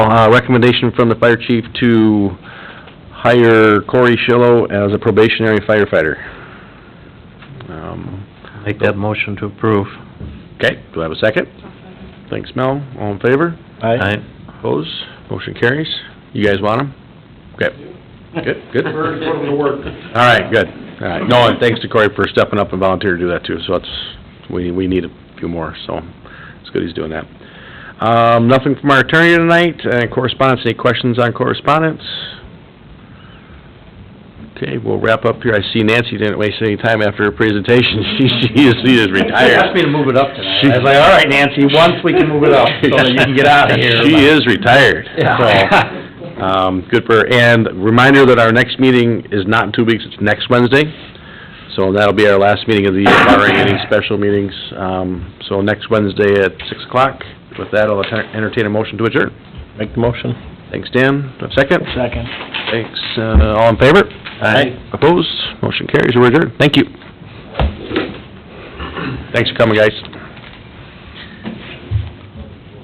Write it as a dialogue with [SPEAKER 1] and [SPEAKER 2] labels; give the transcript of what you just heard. [SPEAKER 1] Uh, recommendation from the fire chief to hire Corey Shillo as a probationary firefighter. Um,
[SPEAKER 2] Make that motion to approve.
[SPEAKER 1] okay, do I have a second? Thanks, Mel. All in favor?
[SPEAKER 2] Aye.
[SPEAKER 1] Opposed? Motion carries. You guys want him? Okay. Good, good.
[SPEAKER 3] We're putting to work.
[SPEAKER 1] All right, good. All right. No, and thanks to Corey for stepping up and volunteering to do that too, so that's, we, we need a few more, so it's good he's doing that. Um, nothing from our attorney tonight, and correspondence, any questions on correspondence? Okay, we'll wrap up here. I see Nancy didn't waste any time after her presentation. She, she is, she is
[SPEAKER 2] She asked
[SPEAKER 1] retired.
[SPEAKER 2] me to move it up tonight. I was like, all right, Nancy, once we can move it up, so that you can get out of here.
[SPEAKER 1] She is retired, so,
[SPEAKER 2] Yeah.
[SPEAKER 1] um, good for her. And reminder that our next meeting is not in two weeks, it's next Wednesday. So that'll be our last meeting of the year, barring any special meetings. Um, so next Wednesday at six o'clock. With that, I'll enter- entertain a motion to adjourn.
[SPEAKER 2] Make the motion.
[SPEAKER 1] Thanks, Dan. A second?
[SPEAKER 2] Second.
[SPEAKER 1] Thanks, uh, all in favor?
[SPEAKER 2] Aye.
[SPEAKER 1] Opposed? Motion carries, we're adjourned. Thank you. Thanks for coming, guys.